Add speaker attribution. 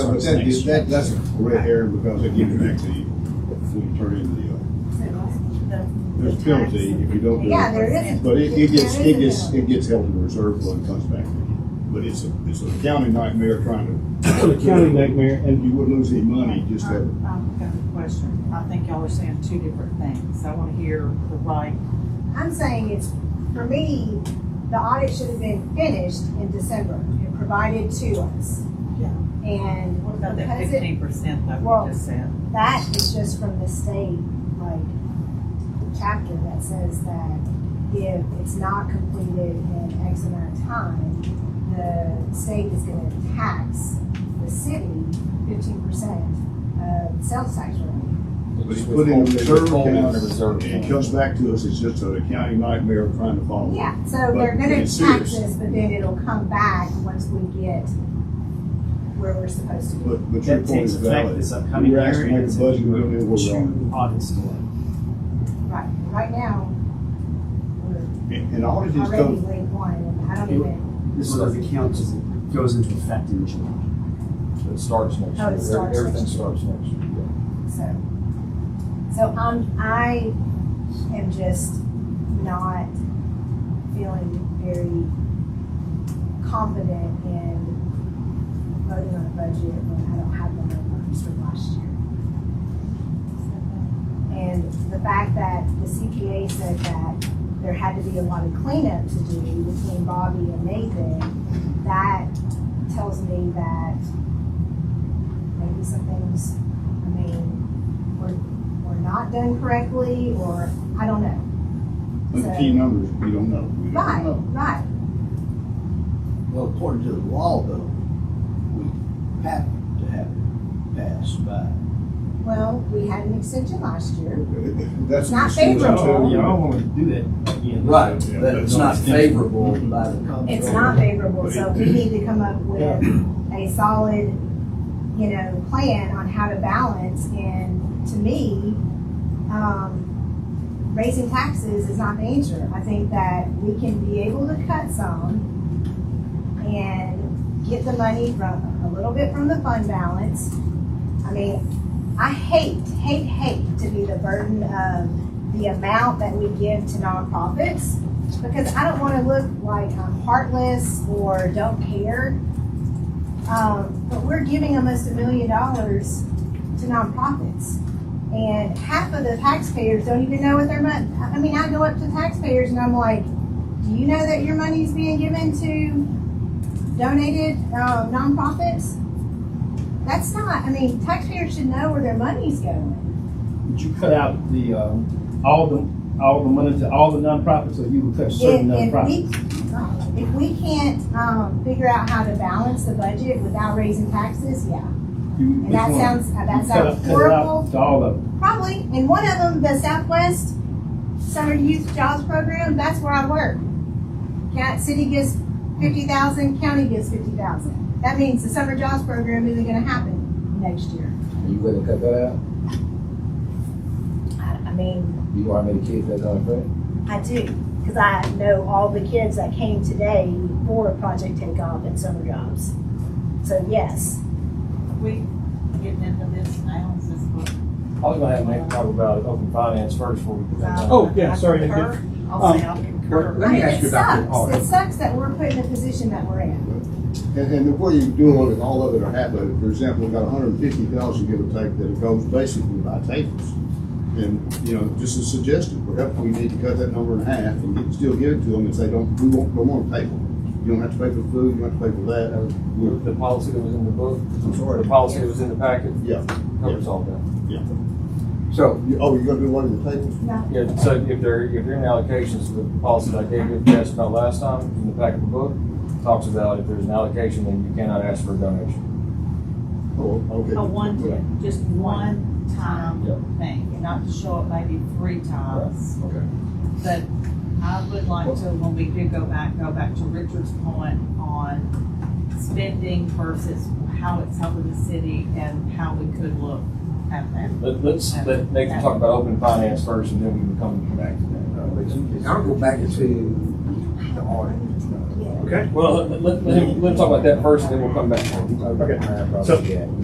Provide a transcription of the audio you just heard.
Speaker 1: But
Speaker 2: those
Speaker 1: that,
Speaker 2: things.
Speaker 1: that, that's a red herring because they give it back to you, when you turn in the, uh, there's a penalty if you don't do it.
Speaker 3: Yeah, there is a-
Speaker 1: But it, it gets,
Speaker 3: there is
Speaker 1: it
Speaker 3: a
Speaker 1: gets, it
Speaker 3: penalty.
Speaker 1: gets held in reserve when it comes back. But it's a, it's a county nightmare trying
Speaker 2: The county nightmare,
Speaker 1: to,
Speaker 2: and
Speaker 1: you would lose any money just that.
Speaker 4: Um, I've got a question. I think y'all are saying two different things. I wanna hear the right.
Speaker 3: I'm saying it's, for me, the audit should have been finished in December and provided to us.
Speaker 4: Yeah.
Speaker 3: And
Speaker 4: What about that
Speaker 3: because it,
Speaker 4: fifteen percent that
Speaker 3: Well-
Speaker 4: we just said?
Speaker 3: that is just from the state, like, chapter that says that if it's not completed in X amount of time, the state is gonna tax the city fifteen percent of sales tax revenue.
Speaker 1: But it's put in reserve
Speaker 5: Withholding the
Speaker 1: account,
Speaker 5: reserve
Speaker 1: and it
Speaker 5: account.
Speaker 1: comes back to us, it's just a county nightmare trying to follow.
Speaker 3: Yeah, so
Speaker 1: But
Speaker 3: they're gonna
Speaker 1: it's
Speaker 3: tax
Speaker 1: serious.
Speaker 3: us, but then it'll come back once we get where we're supposed to be.
Speaker 1: But, but your
Speaker 6: That
Speaker 1: point
Speaker 6: takes
Speaker 1: is
Speaker 6: effect
Speaker 1: valid.
Speaker 6: this upcoming
Speaker 1: We're
Speaker 6: year.
Speaker 1: asking
Speaker 6: and
Speaker 1: like a
Speaker 6: it's
Speaker 1: budget, we don't know
Speaker 6: two
Speaker 1: what we're on.
Speaker 6: Audits delay.
Speaker 3: Right, right now, we're
Speaker 1: And and all of these
Speaker 3: already
Speaker 1: come,
Speaker 3: late one, and I don't even,
Speaker 6: This is the council goes into effect in July.
Speaker 5: It starts next
Speaker 3: Oh, it
Speaker 5: year.
Speaker 3: starts
Speaker 5: Everything
Speaker 3: next year.
Speaker 5: starts next year.
Speaker 3: so. So, um, I am just not feeling very confident in voting on a budget when I don't have the numbers from last year. And the fact that the CPA said that there had to be a lot of cleanup to do between Bobby and Nathan, that tells me that maybe some things, I mean, were, were not done correctly, or, I don't know.
Speaker 1: but the key numbers, we don't know. We don't
Speaker 3: Right,
Speaker 1: know.
Speaker 3: right,
Speaker 7: Well, according to the law though, we have to have it passed by.
Speaker 3: well, we had an extension last year,
Speaker 1: That's.
Speaker 3: Not
Speaker 1: what she was
Speaker 3: favorable.
Speaker 1: telling me.
Speaker 6: Y'all wanna do that again.
Speaker 7: Right,
Speaker 1: Yeah,
Speaker 7: but
Speaker 1: that's
Speaker 7: it's
Speaker 1: not
Speaker 7: not favorable by the comptroller.
Speaker 3: it's not favorable, so we need to come up with a solid, you know, plan on how to balance, and to me, um, raising taxes is not the answer. I think that we can be able to cut some and get the money from, a little bit from the fund balance. I mean, I hate, hate, hate to be the burden of the amount that we give to nonprofits, because I don't wanna look like I'm heartless or don't care. Um, but we're giving almost a million dollars to nonprofits. And half of the taxpayers don't even know what their money, I mean, I go up to taxpayers and I'm like, do you know that your money's being given to donated, uh, nonprofits? That's not, I mean, taxpayers should know where their money's going.
Speaker 2: would you cut out the, um, all the, all the money to all the nonprofits, or you would cut certain
Speaker 3: If, if
Speaker 2: nonprofits?
Speaker 3: we, if we can't, um, figure out how to balance the budget without raising taxes, yeah.
Speaker 2: You-
Speaker 3: And
Speaker 2: which
Speaker 3: that
Speaker 2: one?
Speaker 3: sounds, uh,
Speaker 2: You
Speaker 3: that
Speaker 2: cut it-
Speaker 3: sounds
Speaker 2: cut it out
Speaker 3: horrible.
Speaker 2: To all of them.
Speaker 3: Probably. And one of them, the Southwest Summer Youth Jobs Program, that's where I work. Count, city gives fifty thousand, county gives fifty thousand. That means the summer jobs program isn't gonna happen next year.
Speaker 5: You willing to cut that out?
Speaker 3: I, I mean,
Speaker 5: You know how many kids that's on the front?
Speaker 3: I do, cause I know all the kids that came today for Project Take Off and summer jobs. So yes.
Speaker 4: We getting into this now, is this what?
Speaker 5: I was gonna have Nick talk about open finance first before we.
Speaker 2: Oh, yeah,
Speaker 4: I
Speaker 2: sorry, I did.
Speaker 4: concur. I'll say I
Speaker 6: well, let
Speaker 4: concur.
Speaker 6: me
Speaker 3: It
Speaker 6: ask you about the
Speaker 3: sucks.
Speaker 6: audit.
Speaker 3: It sucks that we're put in the position that we're in.
Speaker 1: And, and the way you do all of it, all of it are happening, for example, we've got hundred and fifty thousand give or take that it goes basically by tables. And, you know, just a suggestion, perhaps we need to cut that number in half and get- still give it to them and say, don't, we won't, don't want a table. You don't have to pay for food, you don't have to pay for that, or, we're-
Speaker 5: The policy that was in the book,
Speaker 1: I'm
Speaker 5: or
Speaker 1: sorry.
Speaker 5: the policy that was in the packet,
Speaker 1: Yeah,
Speaker 5: covers all that.
Speaker 1: yeah.
Speaker 5: So,
Speaker 1: You- Oh, you're gonna do one of the tables?
Speaker 5: yeah, so if they're, if they're in allocations, the policy that I gave you, if you asked about last time, in the packet of the book, talks about if there's an allocation, then you cannot ask for a donation.
Speaker 1: Oh, okay.
Speaker 4: A one, just one time
Speaker 5: Yeah.
Speaker 4: thing, not to show up maybe three times.
Speaker 5: Okay.
Speaker 4: But I would like to, when we do go back, go back to Richard's point on spending versus how it's helping the city and how we could look at that.
Speaker 5: Let, let's, let Nick talk about open finance first, and then we can come back to that. Uh, but-
Speaker 7: I'll go back to the audit.
Speaker 5: Well, let, let, let him- let him talk about that first, and then we'll come back.
Speaker 2: Okay.
Speaker 5: Okay.
Speaker 2: So-